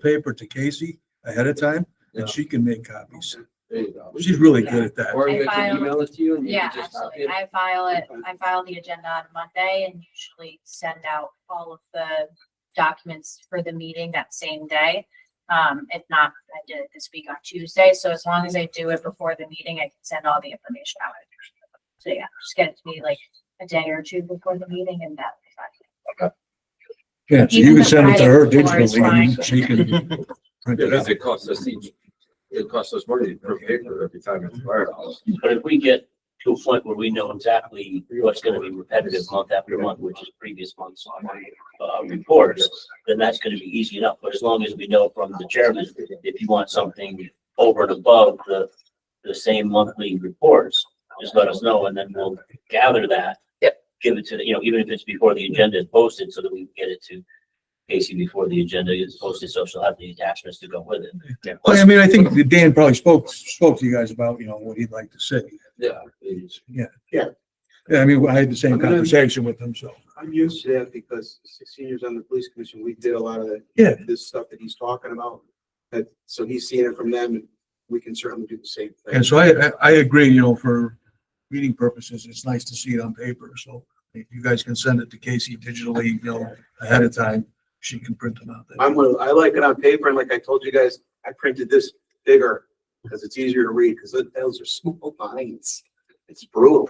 paper to Casey ahead of time Yeah. and she can make copies. There you go. She's really good at that. Or I we can filed- email it to you and you Yeah, can just copy absolutely. it. I file it, Okay. I file the agenda on Monday and usually send out all of the documents for the meeting that same day. Um, if not, I did it this week on Tuesday, so as long as I do it before the meeting, I can send all the information out. So yeah, just get it to me like a day or two before the meeting and that'll be fine. Yeah, so you Even can the send it to Friday her before is digitally and she can. print Yeah, it out. because it costs us each, it costs us money per paper every time it's fired off. But if we get to a point where we know exactly what's gonna be repetitive month after month, which is previous month's uh, reports, then that's gonna be easy enough. But as long as we know from the chairman, if you want something over and above the, the same monthly reports, just let us know and then we'll gather that. Give it to, the you know, even if it's before the agenda is posted, so that we can get it to Casey before the agenda is posted, so she'll have the attachments to go with it. Well, I mean, I think that Dan probably spoke, spoke to you guys about, you know, what he'd like to say. Yeah. it's- Yeah, I mean, I had the I'm same gonna- conversation with him, so. I'm used to that because sixteen years on the police commission, we did a lot of the. Yeah. This stuff that he's talking about, that, so he's seeing it from them, and we can certainly do the same thing. And so I, I- I agree, you know, for reading purposes, it's nice to see it on paper, so if you guys can send it to Casey digitally, you know, ahead of time, she can print them out. then. I'm, one of- I like it on paper, and like I told you guys, I printed this bigger, because it's easier to read, because those are small lines. It's brutal.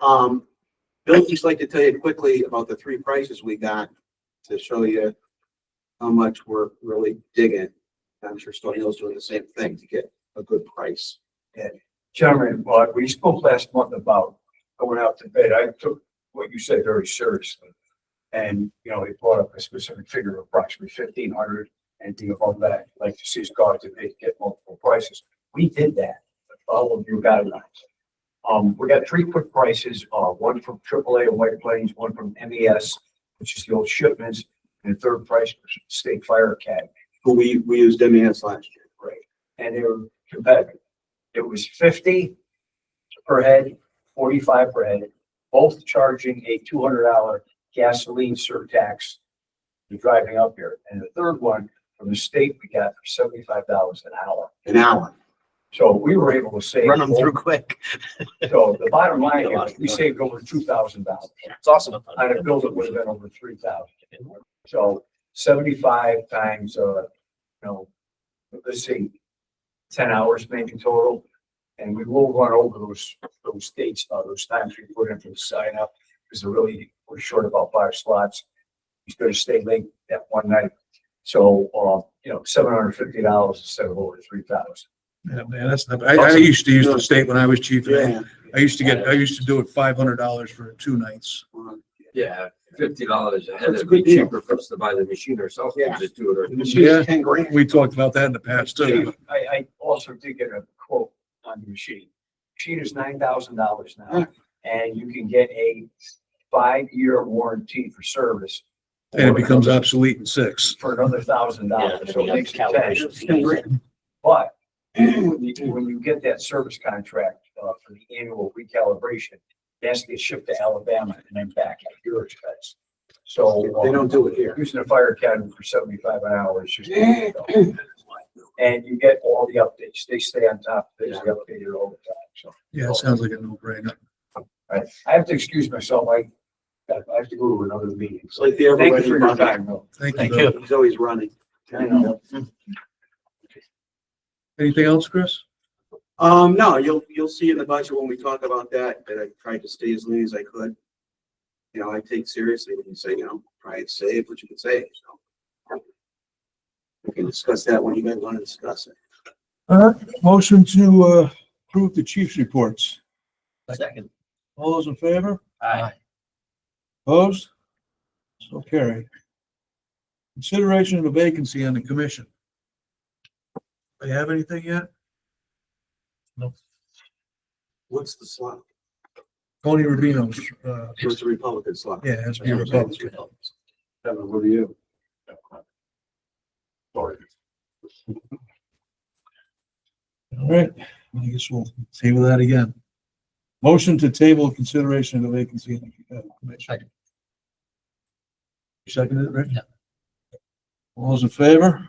Um, Bill, just like to tell you quickly about the three prices we got to show you how much we're really digging. I'm sure Stony Hill's doing the same thing to get a good price. Chairman, Rod, we spoke last month about going out to bid. I took what you said very seriously. And, you know, it brought up a specific figure of approximately fifteen hundred, anything above that, like to see it's got to bid, get multiple prices. We did that, all of you guidelines. Um, we got three quick prices, uh, one from AAA of White Plains, one from MES, which is the old shipments, and the third price was State Fire Academy. who we, we used MES last year. and they were competitive. It was fifty per head, forty-five per head, both charging a two hundred dollar gasoline surtax for driving up here. And the third one from the state, we got for seventy-five dollars an hour. An hour. So we were able to save. Run them through quick. So the bottom line is, we saved over two thousand dollars. It's awesome. On a bill that would have been over three thousand. So seventy-five times, uh, you know, let's see, ten hours maybe total. And we will run over those, those dates, uh, those times we put in for the sign up, because they're really, we're short about five slots. He's gonna stay late that one night. So, uh, you know, seven hundred fifty dollars instead of over three thousand. Yeah, man, that's not, I, I used to use the state when I was chief. and I- I used to get, I used to do it five hundred dollars for two nights. Yeah, fifty dollars a head, That's a it'd good be deal. cheaper for us to buy the machine ourselves Yeah. and just do it. It's Yeah. ten grand. We talked about that in the past too. Chief, I, I also did get a quote on the machine. Machine is nine thousand dollars Hmm. now, and you can get a five-year warranty for service. And it becomes obsolete in six. For another thousand Yeah, dollars, so it makes it ten. calculations. fees. But when you- when you get that service contract, uh, for the annual recalibration, it has to get shipped to Alabama and then back at your expense. So. um, They don't do it here. Using a fire academy for seventy-five an hour is just. And you get all the updates. They stay on top. They stay updated all the time. So Yeah, it sounds like a no brainer. I, I have to excuse myself. I, I have to go to another meeting. It's So like the thank you for everybody your running. time. though. Thank you. Thank Bill. you. He's always running. I know. Anything else, Chris? Um, no, you'll, you'll see in the budget when we talk about that, that I tried to stay as lean as I could. You know, I take seriously when you say, you know, try and save what you can save, so. We can discuss that when you guys want to discuss it. All right, motion to uh, approve the chief's reports. Second. All those in favor? Aye. Opposed? So carried. Consideration of a vacancy on the commission. Do you have anything yet? What's the slot? Tony Rubino's, uh, What's the Republican slot? yeah, has to be a Republican. Kevin, what do you? Sorry. All right, I guess we'll table that again. Motion to table consideration of the vacancy on the uh, commission. You seconded it, Rick? Yeah. All those in favor?